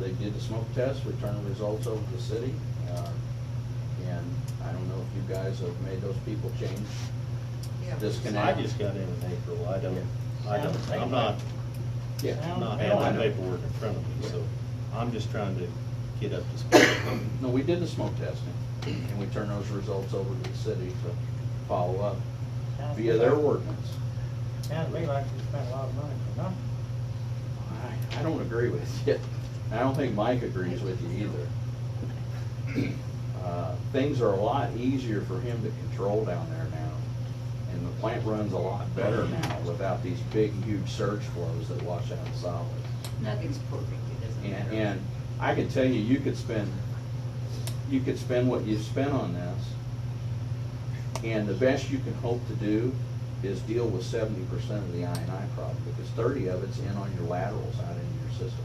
did the smoke test, returned the results over to the city. uh, And I don't know if you guys have made those people change, Yeah. disconnect. I just got in in April, I don't, I Yeah. don't, I'm not, Yeah, I'm not I don't having know. paperwork in front of me, Yeah. so I'm just trying to get up to speed. no, we did the smoke testing, and we turned those results over to the city to follow up Sounds via their like- ordinance. Sounds to me like you spent a lot of money for nothing. I, I don't agree with you. I don't think Mike agrees with you either. Uh, Things are a lot easier for him to control down there now, and the plant runs a lot better now without these big, huge surge flows that wash out the solids. Nothing's perfect, it doesn't matter. And, and I could tell you, you could spend, you could spend what you spent on this, and the best you can hope to do is deal with seventy percent of the I and I problem, because thirty of it's in on your laterals out in your system.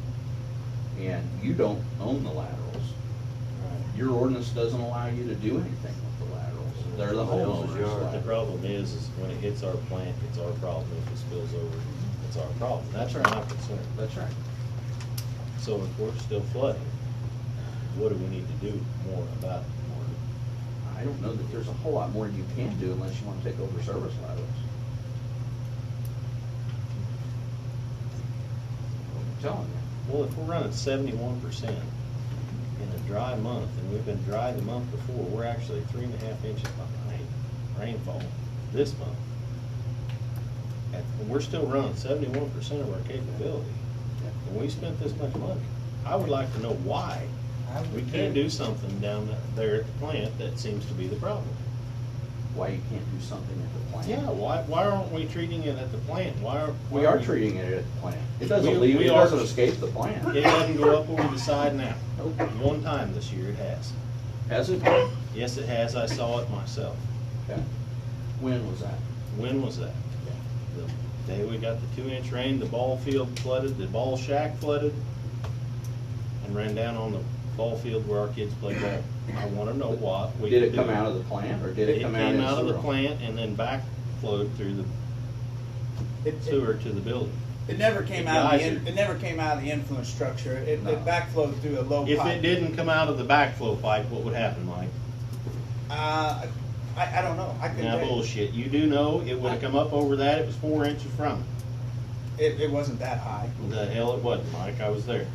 And you don't own the laterals. Your ordinance doesn't allow you to do anything with the laterals. They're the homeowner's laterals. The problem is, is when it hits our plant, it's our problem, if it spills over, it's our problem, that's our not concern. That's right. So if we're still flooding, what do we need to do more about it? More- I don't know that there's a whole lot more you can do unless you wanna take over service laterals. I'm telling you. Well, if we're running seventy-one percent in a dry month, and we've been dry the month before, we're actually three and a half inches behind rainfall this month. And we're still running seventy-one percent of our capability, and we spent this much money. I would like to know why I would we too. can't do something down there at the plant that seems to be the problem. Why you can't do something at the plant? Yeah, why, why aren't we treating it at the plant? Why are? We are treating it at the plant. It We- doesn't leave, we it are- doesn't escape the plant. It doesn't go up over the side now. Nope. One time this year it has. Has it? Yes, it has. I saw it myself. Okay. When was that? When was that? The day we got the two-inch rain, the ball field flooded, the ball shack flooded, and ran down on the ball field where our kids play ball. I want to know what we Did can it come do. out of the plant or did it come out? in It came out of the sewer? plant and then backflowed through the It, it, sewer to the building. it never came out of the, in- Geyser. it never came out of the influence structure. It, No. it backflowed through a low If pipe. it didn't come out of the backflow pipe, what would happen, Mike? Uh, I, I don't know. I couldn't Now tell you. bullshit. You do know it would have come up over that. It was four inches from it. It, it wasn't that high. The hell it wasn't, Mike. I was there.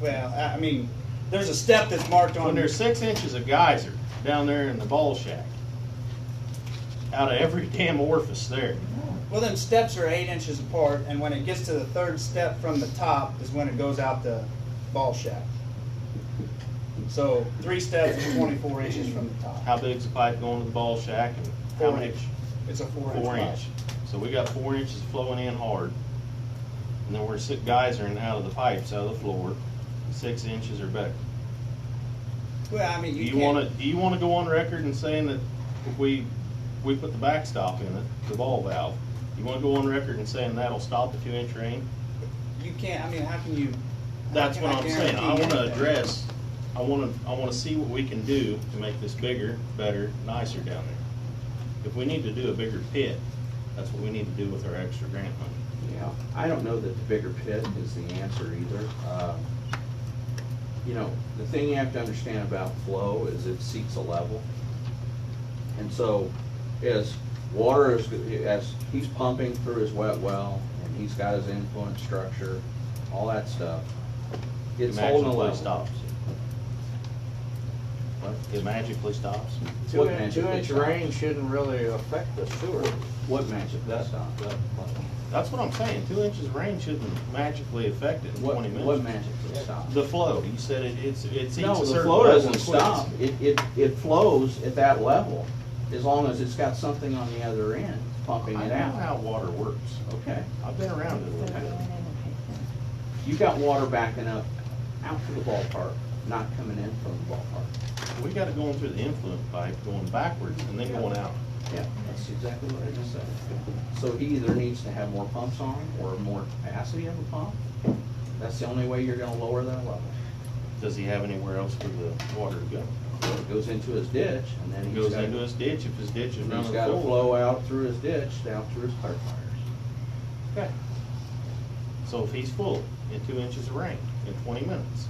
Well, I, I mean, there's a step that's marked on When there's six inches of geyser down there in the ball shack, out of every damn orifice there. Well, them steps are eight inches apart, and when it gets to the third step from the top is when it goes out the ball shack. So three steps is 24 inches from the top. How big's the pipe going to the ball shack and how Four much? inch. It's a four, Four inch. inch. So we got four inches flowing in hard. And then we're six geysering out of the pipes, out of the floor, six inches or better. pipe. Well, I mean, Do you, you can't- wanna, do you wanna go on record and saying that if we, we put the backstop in it, the ball valve, you wanna go on record and saying that'll stop the two inch rain? You can't. I mean, how can you? That's how what can I'm saying, I guarantee wanna anything? address, I wanna, I wanna see what we can do to make this bigger, better, nicer down there. If we need to do a bigger pit, that's what we need to do with our extra grant money. Yeah, I don't know that the bigger pit is the answer either. Um, You know, the thing you have to understand about flow is it seeks a level. And so as water is, as he's pumping through his wet well and he's got his influence structure, all that stuff, It it's holding a magically level. Stops. What? It magically stops? What Two inch, magic two they inch stop? rain shouldn't really affect the sewer. What magic does stop? That's what I'm saying, two inches of rain shouldn't magically affect it in What, twenty minutes. what magic does stop? The flow, you said it, it's, it seems No, a the certain flow level doesn't and stop. quits. It, it, it flows at that level, as long as it's got something on the other end pumping I it know out. how water works. Okay, I've been around it a little bit. you got water backing up out to the ballpark, not coming in from the ballpark. We got it going through the influent pipe, going backwards and then going out. Yeah, that's exactly what I just said. So he either needs to have more pumps on or more capacity of a pump. That's the only way you're gonna lower that level. Does he have anywhere else for the water to go? So it goes into his ditch and then It he's goes got, into his ditch, if his ditch is and he's running gotta full. flow out through his ditch, down through his clear fires. So if he's full in two inches of rain in twenty minutes,